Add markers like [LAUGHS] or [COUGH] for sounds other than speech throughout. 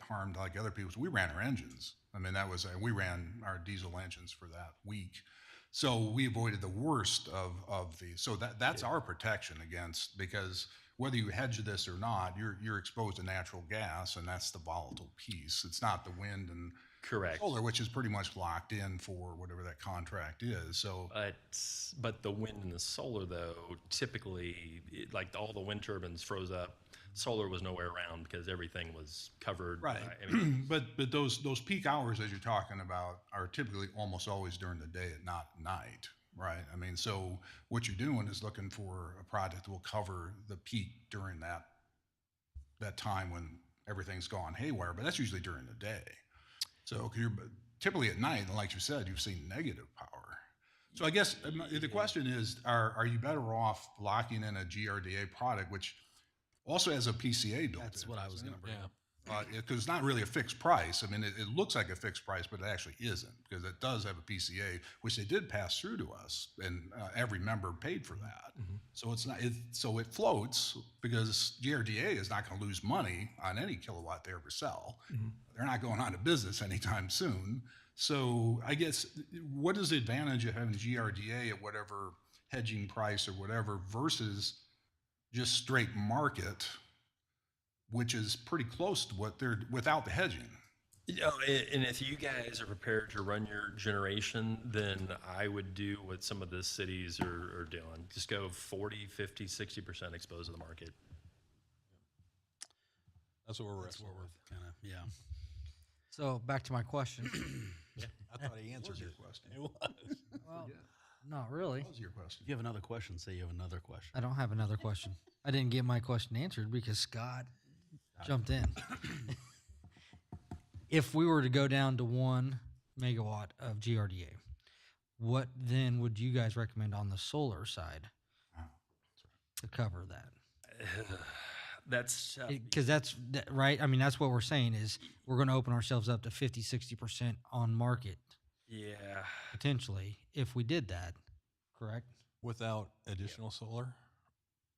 harmed like other people's. We ran our engines. I mean, that was, we ran our diesel engines for that week. So we avoided the worst of, of the, so that, that's our protection against, because whether you hedge this or not, you're, you're exposed to natural gas and that's the volatile piece. It's not the wind and Correct. solar, which is pretty much locked in for whatever that contract is. So But but the wind and the solar though, typically, it, like all the wind turbines froze up. Solar was nowhere around because everything was covered. Right. by- [CLEARS THROAT] I [CLEARS THROAT] mean, But, but those, those peak hours as you're talking about are typically almost always during the day and not night, right? I mean, so what you're doing is looking for a project that will cover the peak during that, that time when everything's gone haywire, but that's usually during the day. So 'cause you're, but typically at night, and like you said, you've seen negative power. So I guess um, the question is, are, are you better off locking in a GRDA product, which also has a PCA built in? That's what I was doesn't it? gonna bring up. because Uh, it's not really a fixed price. I mean, it, it looks like a fixed price, but it actually isn't because it does have a PCA, which they did pass through to us, and uh, every member paid for that. Mm-hmm. So it's not it, so it floats because GRDA is not going to lose money on any kilowatt they ever sell. They're not going out of business anytime soon. So I guess what is the advantage of having GRDA at whatever hedging price or whatever versus just straight market? which is pretty close to what they're without the hedging. you know, a- and if you guys are prepared to run your generation, then I would do what some of the cities are, are doing. Just go 40, 50, 60% exposed to the market. That's what we're That's wrestling what with. we're kind of yeah. [LAUGHS] So back to my question. I thought I answered your it. question? It was. well, not really. What was your question? You have another question. Say you have another question. I don't have another question. I didn't get my question answered because Scott jumped in. if we were to go down to one megawatt of GRDA, what then would you guys recommend on the solar side to cover that? That's tough. because that's that, right i mean that's what we're saying is we're going to open ourselves up to 50 60% on market Yeah. potentially if we did that correct Without additional solar,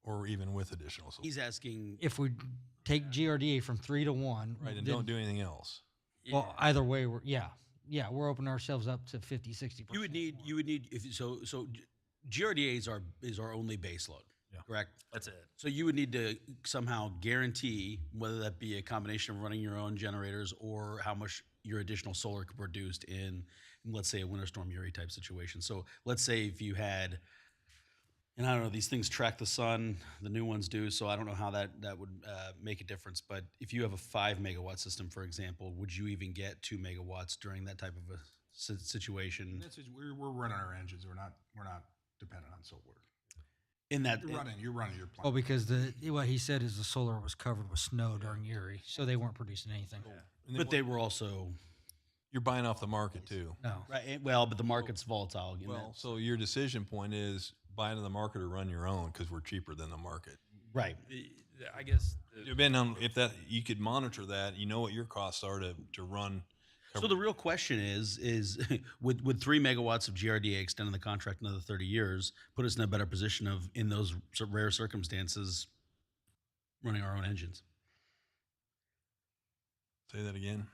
or even with additional solar, He's asking. if we take grda from 3 to 1 right? And then- don't do anything else. well either way we're yeah yeah we're opening ourselves up to 50 60% You would need. You would need. If so, so G- GRDA is our is our only base load. Yeah. Correct. That's it. So you would need to somehow guarantee whether that be a combination of running your own generators or how much your additional solar could produced in, let's say, a winter storm Uri type situation. So let's say if you had, and I don't know, these things track the sun, the new ones do. So I don't know how that that would uh, make a difference. But if you have a five megawatt system, for example, would you even get two megawatts during that type of a si- situation? This is, we're, we're running our engines. We're not, we're not dependent on solar. In that, You're running, you're running your plant. well because the what he said is the solar was covered with snow during erie so they weren't producing anything And then but what- they were also you're buying off the market too. no right. eh, Well, but the market's volatile. you know. Well, so your decision point is buy into the market or run your own because we're cheaper than the market. right. I guess. Depending on if that you could monitor that, you know what your costs are to to run. So the real question is, is [LAUGHS] would, would three megawatts of GRDA extending the contract another thirty years put us in a better position of, in those s- rare circumstances, running our own engines? Say that again.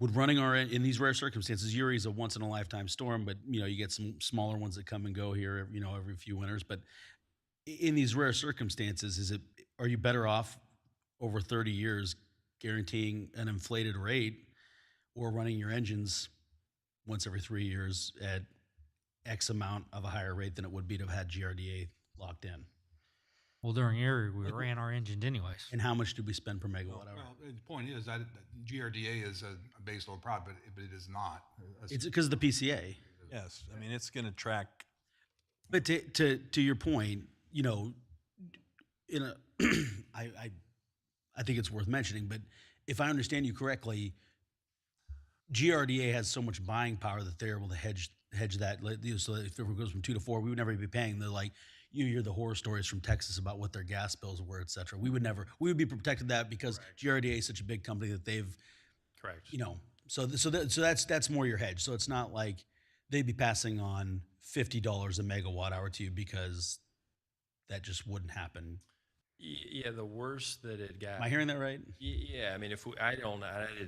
Would running our, en- in these rare circumstances, Uri's a once in a lifetime storm, but you know, you get some smaller ones that come and go here, you know, every few winters, but i- in these rare circumstances, is it, are you better off over thirty years guaranteeing an inflated rate or running your engines once every three years at X amount of a higher rate than it would be to have had GRDA locked in? well during erie we ran our engine anyways And how much do we spend per megawatt hour? Well, the point is that GRDA is a, a base load product, but it, but it is not. a- a- It's because of the PCA. Yes, I mean it's going to track. But to to to your point, you know, in a [CLEARS THROAT] I I I think it's worth mentioning, but if I understand you correctly, GRDA has so much buying power that they're able to hedge hedge that. like, you know, So if it goes from two to four, we would never be paying the like you hear the horror stories from Texas about what their gas bills were, et cetera. We would never we would be protected that because GRDA is such a big company that they've Correct. you know, so th- so that so that's that's more your hedge. So it's not like they'd be passing on fifty dollars a megawatt hour to you because that just wouldn't happen. Y- Yeah, the worst that it got. Am I hearing that right? Y- Yeah, I mean, if we, I don't, I,